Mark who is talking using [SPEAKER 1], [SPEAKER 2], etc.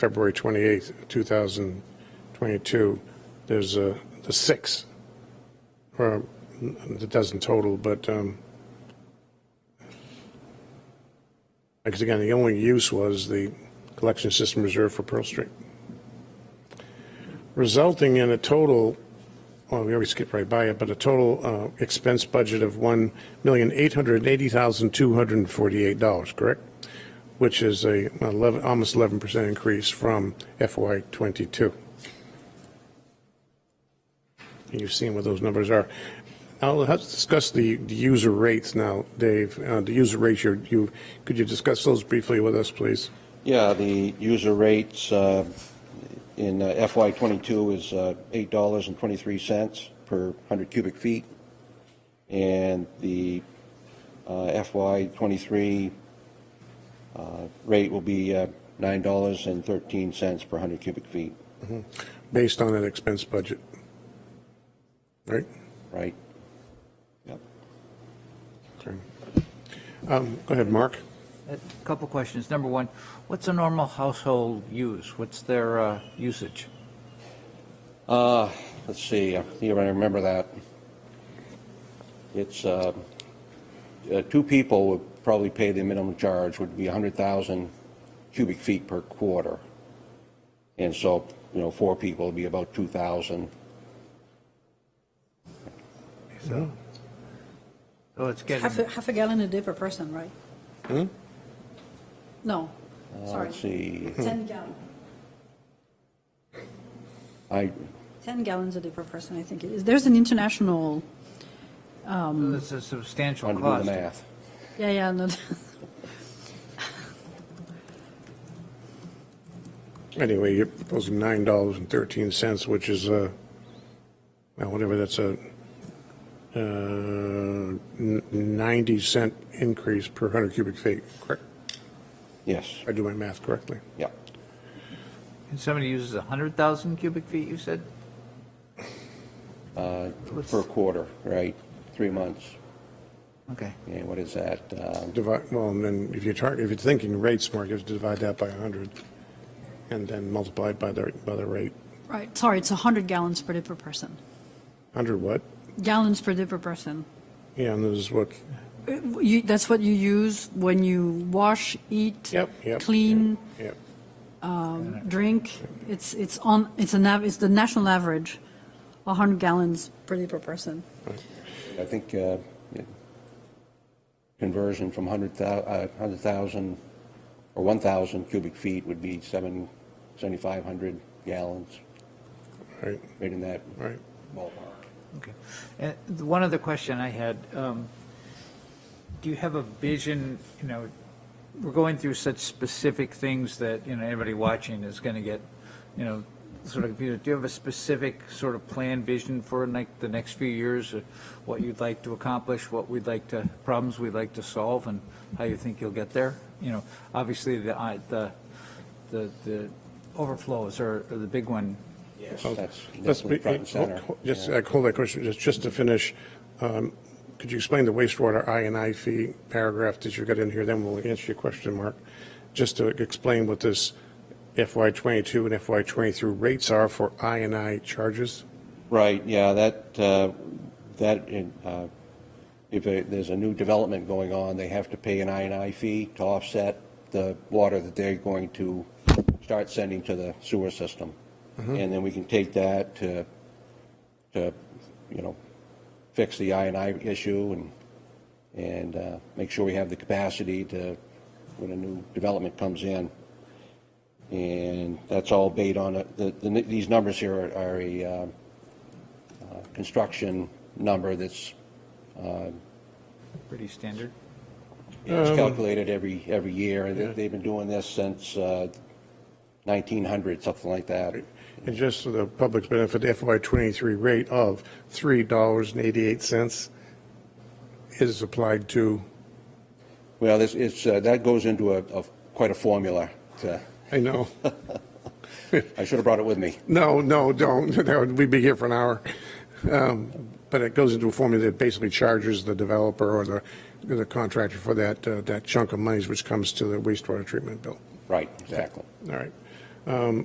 [SPEAKER 1] February 28th, 2022, there's uh, the six, or it doesn't total, but, um, because again, the only use was the collection system reserved for Pearl Street, resulting in a total, well, we already skipped right by it, but a total uh, expense budget of $1,880,248, correct? which is a 11, almost 11% increase from FY '22. You've seen what those numbers are. Now, let's discuss the the user rates now, Dave, Uh, the user rates, you- you, could you discuss those briefly with us, please?
[SPEAKER 2] Yeah, the user rates uh, in uh, FY '22 is uh, $8.23 per 100 cubic feet, and the uh, FY '23 rate will be uh, $9.13 per 100 cubic feet,
[SPEAKER 1] Based on that expense budget, right?
[SPEAKER 2] right? Yep.
[SPEAKER 1] Okay. Um, Go ahead, Mark.
[SPEAKER 3] A Couple questions. Number one, what's a normal household use? What's their uh, usage?
[SPEAKER 2] Uh, Let's see, I think I remember that. It's, uh, uh, two people would probably pay the minimum charge, would be 100,000 cubic feet per quarter. And so, you know, four people would be about 2,000.
[SPEAKER 3] So it's getting,
[SPEAKER 4] Half, a- half a gallon a day per person, right?
[SPEAKER 1] Hmm?
[SPEAKER 4] No,
[SPEAKER 1] Oh,
[SPEAKER 2] Uh,
[SPEAKER 4] sorry,
[SPEAKER 2] Let's see,
[SPEAKER 4] 10 gallon,
[SPEAKER 2] I,
[SPEAKER 4] 10 gallons a day per person, I think it is. There's an international,
[SPEAKER 3] so it's a substantial
[SPEAKER 2] trying to do the
[SPEAKER 3] cost.
[SPEAKER 2] math.
[SPEAKER 4] yeah, yeah, no,
[SPEAKER 1] Anyway, you're proposing $9.13, which is, uh, well, whatever, that's a uh, n- 90 cent increase per 100 cubic feet, correct?
[SPEAKER 2] Yes,
[SPEAKER 1] If I do my math correctly.
[SPEAKER 2] yeah.
[SPEAKER 3] And somebody uses 100,000 cubic feet, you said?
[SPEAKER 2] Per quarter, right? Three months.
[SPEAKER 3] Okay.
[SPEAKER 2] And what is that? Um,
[SPEAKER 1] Divide, well, and then if you're targeting, if you're thinking rates, Mark, you have to divide that by 100 and then multiply it by the, by the rate.
[SPEAKER 4] right, sorry, it's 100 gallons per day per person.
[SPEAKER 1] 100 what?
[SPEAKER 4] Gallons per day per person.
[SPEAKER 1] Yeah, and this is what,
[SPEAKER 4] Uh, You, that's what you use when you wash, eat,
[SPEAKER 1] yep, yep.
[SPEAKER 4] clean,
[SPEAKER 1] Yep.
[SPEAKER 4] drink. It's, it's on, it's an, av- it's the national average, 100 gallons per day per person.
[SPEAKER 2] I think uh, it- conversion from 100,000 uh, 100,000 or 1,000 cubic feet would be seven- 7,500 gallons,
[SPEAKER 1] Right,
[SPEAKER 2] right in that
[SPEAKER 1] right.
[SPEAKER 2] ballpark.
[SPEAKER 3] Okay. And the one other question I had, um, do you have a vision, you know, we're going through such specific things that, you know, everybody watching is going to get, you know, sort of, confused. do you have a specific sort of plan, vision for like the next few years? of What you'd like to accomplish, what we'd like to, problems we'd like to solve and how you think you'll get there? You know, obviously the, I- the, the, the overflows are are the big one.
[SPEAKER 2] Yes.
[SPEAKER 1] Let's
[SPEAKER 2] That's
[SPEAKER 1] be,
[SPEAKER 2] definitely front and
[SPEAKER 1] hold-
[SPEAKER 2] center.
[SPEAKER 1] hold- just,
[SPEAKER 2] Yeah.
[SPEAKER 1] uh, hold that question, just, just to finish, um, could you explain the wastewater I and I fee paragraph that you got in here, then we'll answer your question, Mark. Just to explain what this FY twenty-two and FY twenty-three rates are for I and I charges?
[SPEAKER 2] Right, yeah, that, uh, that, uh, if a- there's a new development going on, they have to pay an I and I fee to offset the water that they're going to start sending to the sewer system. And then we can take that to, to, you know, fix the I and I issue and, and uh, make sure we have the capacity to, when a new development comes in. And that's all based on, a- the, the- these numbers here are- are a, uh, construction number that's
[SPEAKER 3] Pretty standard.
[SPEAKER 2] it's calculated every, every year, and they- they've been doing this since uh, 1900, something like that.
[SPEAKER 1] And just for the public's benefit, the FY twenty-three rate of three dollars and eighty-eight cents is applied to,
[SPEAKER 2] Well, this, it's, uh, that goes into a, a- quite a formula. to-
[SPEAKER 1] I know,
[SPEAKER 2] I should have brought it with me.
[SPEAKER 1] no, no, don't, That would- we'd be here for an hour. Um, But it goes into a formula that basically charges the developer or the, the contractor for that, uh, that chunk of monies which comes to the wastewater treatment bill.
[SPEAKER 2] Right, exactly.
[SPEAKER 1] All right. um,